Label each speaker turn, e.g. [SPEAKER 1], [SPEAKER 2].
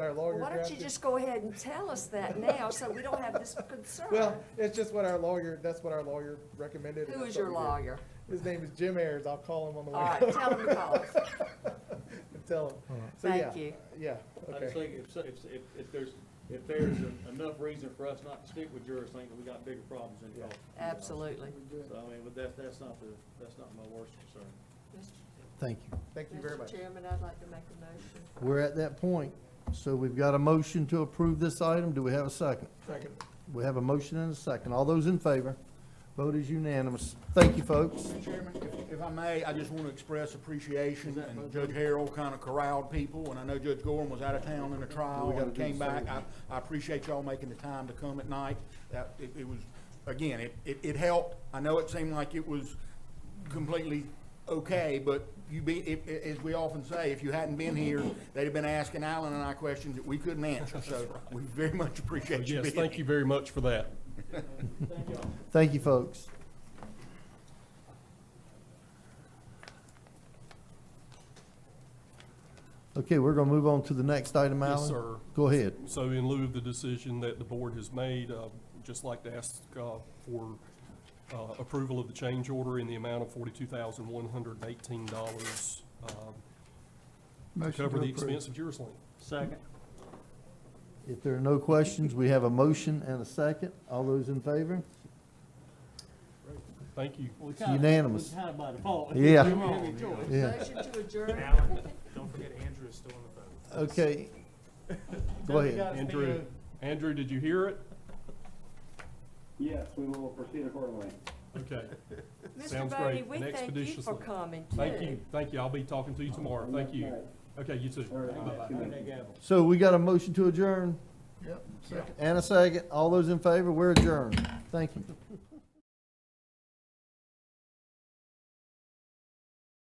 [SPEAKER 1] our lawyer
[SPEAKER 2] Why don't you
[SPEAKER 1] drafted.
[SPEAKER 2] just go ahead and tell us that now, so we don't have this concern?
[SPEAKER 1] Well, it's just what our lawyer, that's what our lawyer recommended. and
[SPEAKER 2] Who
[SPEAKER 1] that's
[SPEAKER 2] is
[SPEAKER 1] what
[SPEAKER 2] your
[SPEAKER 1] we did.
[SPEAKER 2] lawyer?
[SPEAKER 1] His name is Jim Ayers. I'll call him on the way.
[SPEAKER 2] All right, tell him to call us.
[SPEAKER 1] And Tell him. So,
[SPEAKER 2] Thank
[SPEAKER 1] yeah,
[SPEAKER 2] you.
[SPEAKER 1] Yeah,
[SPEAKER 3] I just
[SPEAKER 1] okay.
[SPEAKER 3] think if, so- if, if, if there's, if there's enough reason for us not to stick with jurors, I think that we got bigger problems in Gulf.
[SPEAKER 2] Absolutely.
[SPEAKER 3] So, I mean, but that's, that's not the, that's not my worst concern.
[SPEAKER 4] Thank you.
[SPEAKER 1] Thank you very much.
[SPEAKER 2] Chairman, I'd like to make a motion.
[SPEAKER 4] We're at that point, so we've got a motion to approve this item. Do we have a second?
[SPEAKER 1] Second.
[SPEAKER 4] We have a motion and a second. All those in favor? Vote is unanimous. Thank you, folks.
[SPEAKER 5] Mr. Chairman, if- if I may, I just want to express appreciation, and Judge Harrell kind of corralled people, and I know Judge Gorham was out of town in a trial
[SPEAKER 4] gotta
[SPEAKER 5] and
[SPEAKER 4] do
[SPEAKER 5] came
[SPEAKER 4] the same.
[SPEAKER 5] back. I, I appreciate y'all making the time to come at night. That, it, it was, again, it, it, it helped. I know it seemed like it was completely okay, but you be, if, i- as we often say, if you hadn't been here, they'd have been asking Alan and I questions that we couldn't answer, so we very much appreciate you being
[SPEAKER 6] Oh, Yes,
[SPEAKER 5] here.
[SPEAKER 6] thank you very much for that.
[SPEAKER 4] Thank you, folks. Okay, we're gonna move on to the next item, Alan.
[SPEAKER 6] Yes, sir.
[SPEAKER 4] Go ahead.
[SPEAKER 6] So in lieu of the decision that the board has made, uh, just like to ask uh, for uh, approval of the change order in the amount of forty-two thousand one hundred and eighteen dollars to cover the expense of Juraslink.
[SPEAKER 3] Second.
[SPEAKER 4] If there are no questions, we have a motion and a second. All those in favor?
[SPEAKER 6] Thank you.
[SPEAKER 3] Well, we
[SPEAKER 4] kinda- unanimous. we
[SPEAKER 3] kind of by default.
[SPEAKER 4] Yeah. We Yeah.
[SPEAKER 2] Motion to adjourn.
[SPEAKER 7] Alan, don't forget Andrew is still on the phone.
[SPEAKER 4] Okay. Go ahead.
[SPEAKER 6] Andrew, Andrew, did you hear it?
[SPEAKER 8] Yes, we will proceed accordingly.
[SPEAKER 6] Okay.
[SPEAKER 2] Mr.
[SPEAKER 6] Sounds
[SPEAKER 2] Bodie,
[SPEAKER 6] great.
[SPEAKER 2] we
[SPEAKER 6] And
[SPEAKER 2] thank you for
[SPEAKER 6] expeditiously.
[SPEAKER 2] coming too.
[SPEAKER 6] Thank you, thank you. I'll be talking
[SPEAKER 8] Uh,
[SPEAKER 6] to you tomorrow. Thank you. Okay, you too.
[SPEAKER 8] All right,
[SPEAKER 6] Bye-bye.
[SPEAKER 8] two minutes.
[SPEAKER 4] So we got a motion to adjourn? Yep. And a second. All those in favor, we're adjourned. Thank you.